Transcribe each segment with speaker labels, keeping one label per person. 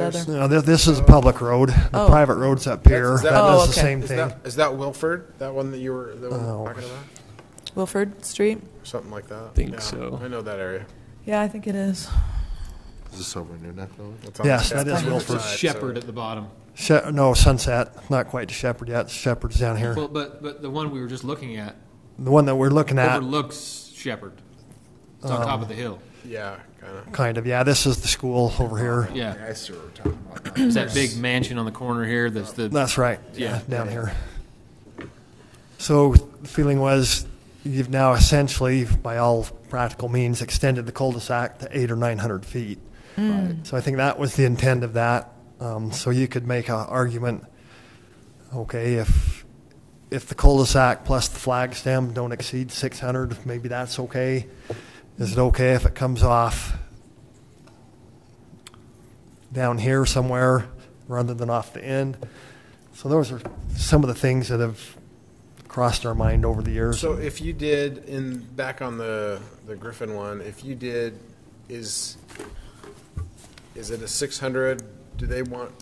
Speaker 1: other?
Speaker 2: No, thi- this is a public road. The
Speaker 1: Oh.
Speaker 2: private road's up here.
Speaker 3: That's-
Speaker 2: That
Speaker 1: that-
Speaker 2: does
Speaker 1: Oh,
Speaker 2: the
Speaker 1: okay.
Speaker 2: same
Speaker 3: Is
Speaker 2: thing.
Speaker 3: that, is that Wilford? That one that you were, that one
Speaker 2: Oh.
Speaker 3: talking about?
Speaker 1: Wilford Street?
Speaker 3: Something like that?
Speaker 4: Think
Speaker 3: Yeah,
Speaker 4: so.
Speaker 3: I know that area.
Speaker 1: Yeah, I think it is.
Speaker 5: Is this over near Nethville?
Speaker 3: It's on
Speaker 2: Yes,
Speaker 3: the
Speaker 2: that is
Speaker 3: south
Speaker 2: Wilford.
Speaker 3: side, so-
Speaker 6: Shepherd at the bottom.
Speaker 2: She- no, Sunset, not quite to Shepherd yet. Shepherd's down here.
Speaker 6: Well, but, but the one we were just looking at
Speaker 2: The one that we're looking at,
Speaker 6: overlooks Shepherd. It's on top of the hill.
Speaker 3: Yeah, kind of.
Speaker 2: kind of. Yeah, this is the school over here.
Speaker 6: Yeah.
Speaker 5: I see what we're talking about. now.
Speaker 6: There's that big mansion on the corner here that's the,
Speaker 2: That's right.
Speaker 6: Yeah.
Speaker 2: down here. So the feeling was you've now essentially, by all practical means, extended the cul-de-sac to eight or nine hundred feet.
Speaker 1: Mm.
Speaker 2: So I think that was the intent of that. Um, so you could make an argument. Okay, if if the cul-de-sac plus the flag stem don't exceed six hundred, maybe that's okay. Is it okay if it comes off down here somewhere rather than off the end? So those are some of the things that have crossed our mind over the years.
Speaker 3: So if you did, in, back on the, the Griffin one, if you did, is, is it a six hundred? Do they want,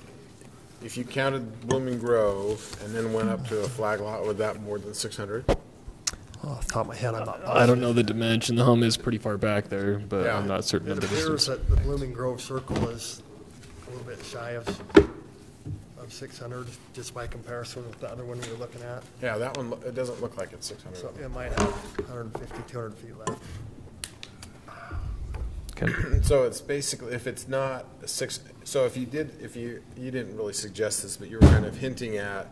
Speaker 3: if you counted Blooming Grove and then went up to a flag lot, would that more than six hundred?
Speaker 2: off the top of my head, I'm not positive.
Speaker 4: I don't know the dimension. The home is pretty far back there, but
Speaker 3: Yeah.
Speaker 4: I'm not certain of
Speaker 2: It
Speaker 4: the
Speaker 2: appears
Speaker 4: distance.
Speaker 2: that the Blooming Grove Circle is a little bit shy of, of 600, just by comparison with the other one we were looking at.
Speaker 3: Yeah, that one, lo- it doesn't look like it's six hundred.
Speaker 2: So it might have 150, 200 feet left.
Speaker 4: Okay.
Speaker 3: So it's basically, if it's not a six, so if you did, if you, you didn't really suggest this, but you were kind of hinting at,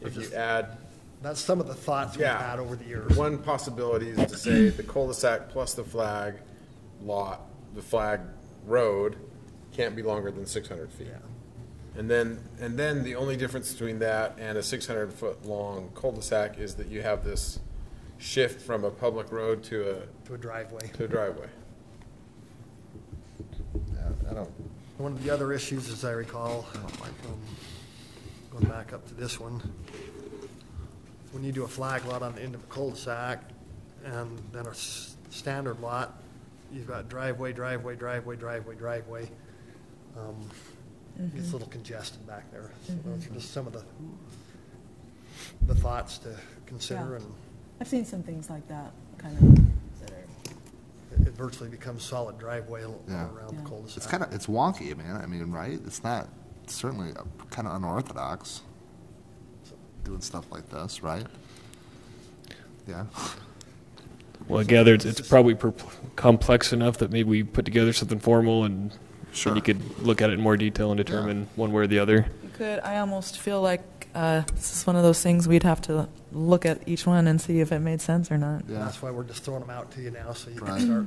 Speaker 3: if you add,
Speaker 2: That's some of the thoughts we've
Speaker 3: Yeah.
Speaker 2: had over the years.
Speaker 3: one possibility is to say the cul-de-sac plus the flag lot, the flag road can't be longer than six hundred feet. And then, and then the only difference between that and a six hundred foot long cul-de-sac is that you have this shift from a public road to
Speaker 2: To a driveway.
Speaker 3: a, to a driveway.
Speaker 5: Yeah, I don't,
Speaker 2: One of the other issues, as I recall, um, going back up to this one, when you do a flag lot on the end of a cul-de-sac and then a s- standard lot, you've got driveway, driveway, driveway, driveway, driveway. Um,
Speaker 1: Mm-hmm.
Speaker 2: It's a little congested back there. So Those are just some of the, the thoughts to consider
Speaker 1: Yeah.
Speaker 2: and
Speaker 1: I've seen some things like that, kind of, that are,
Speaker 2: it- it virtually becomes solid driveway all
Speaker 5: Yeah.
Speaker 2: around the
Speaker 1: Yeah.
Speaker 2: cul-de-sac.
Speaker 5: it's kind of, it's wonky, man. I mean, right? It's not, it's certainly kind of unorthodox, doing stuff like this, right? Yeah.
Speaker 4: Well, I gather it's, it's probably per- complex enough that maybe we put together something formal and
Speaker 5: Sure.
Speaker 4: then you could look at it in more detail and determine one way or the other.
Speaker 1: you could, I almost feel like uh, this is one of those things we'd have to look at each one and see if it made sense or not.
Speaker 5: Yeah.
Speaker 2: That's why we're just throwing them out to you now, so you can
Speaker 5: Right.
Speaker 2: start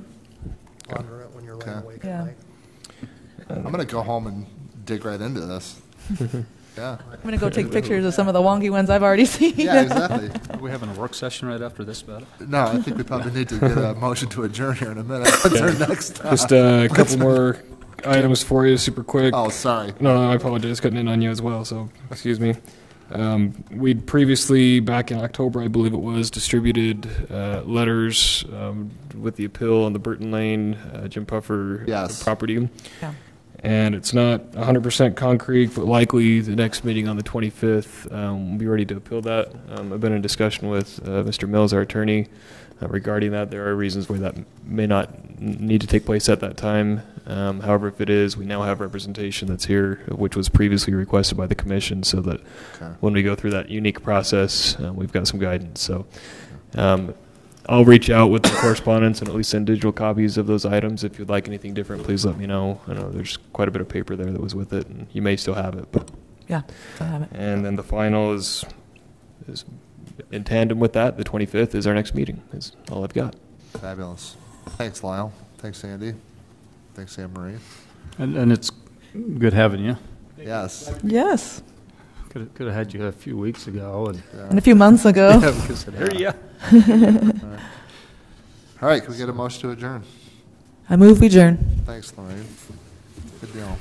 Speaker 2: pondering it when you're laying
Speaker 5: Okay.
Speaker 2: awake
Speaker 1: Yeah.
Speaker 2: at night.
Speaker 5: I'm going to go home and dig right into this. Yeah.
Speaker 1: I'm going to go take pictures of some of the wonky ones I've already seen.
Speaker 5: Yeah, exactly.
Speaker 7: Are we having a work session right after this about it?
Speaker 5: No, I think we probably need to get a motion to adjourn here in a minute. What's our next?
Speaker 4: Just uh, a couple more items for you, super quick.
Speaker 5: Oh, sorry.
Speaker 4: No, no, I apologize. Cutting in on you as well, so excuse me. Um, we'd previously, back in October, I believe it was, distributed uh, letters um, with the appeal on the Burton Lane uh, Jim Puffer
Speaker 5: Yes.
Speaker 4: property.
Speaker 1: Yeah.
Speaker 4: And it's not 100% concrete, but likely the next meeting on the 25th, um, we'll be ready to appeal that. Um, I've been in discussion with uh, Mr. Mills, our attorney, uh, regarding that. There are reasons why that may not n- need to take place at that time. Um, however, if it is, we now have representation that's here, which was previously requested by the commission, so that
Speaker 5: Okay.
Speaker 4: when we go through that unique process, uh, we've got some guidance. So um, I'll reach out with the correspondence and at least send digital copies of those items. If you'd like anything different, please let me know. I know there's quite a bit of paper there that was with it, and you may still have it. But,
Speaker 1: Yeah, I have it.
Speaker 4: and then the final is is in tandem with that. The 25th is our next meeting. Is all I've got.
Speaker 5: Fabulous. Thanks, Lyle. Thanks, Andy. Thanks, Anne Marie.
Speaker 7: And, and it's good having you.
Speaker 5: Yes.
Speaker 1: Yes,
Speaker 7: Could have, could have had you a few weeks ago and.
Speaker 1: and a few months ago.
Speaker 7: Yeah, because it happened.
Speaker 5: All right, can we get a motion to adjourn?
Speaker 1: I move we adjourn.
Speaker 5: Thanks, Lorraine. Good deal.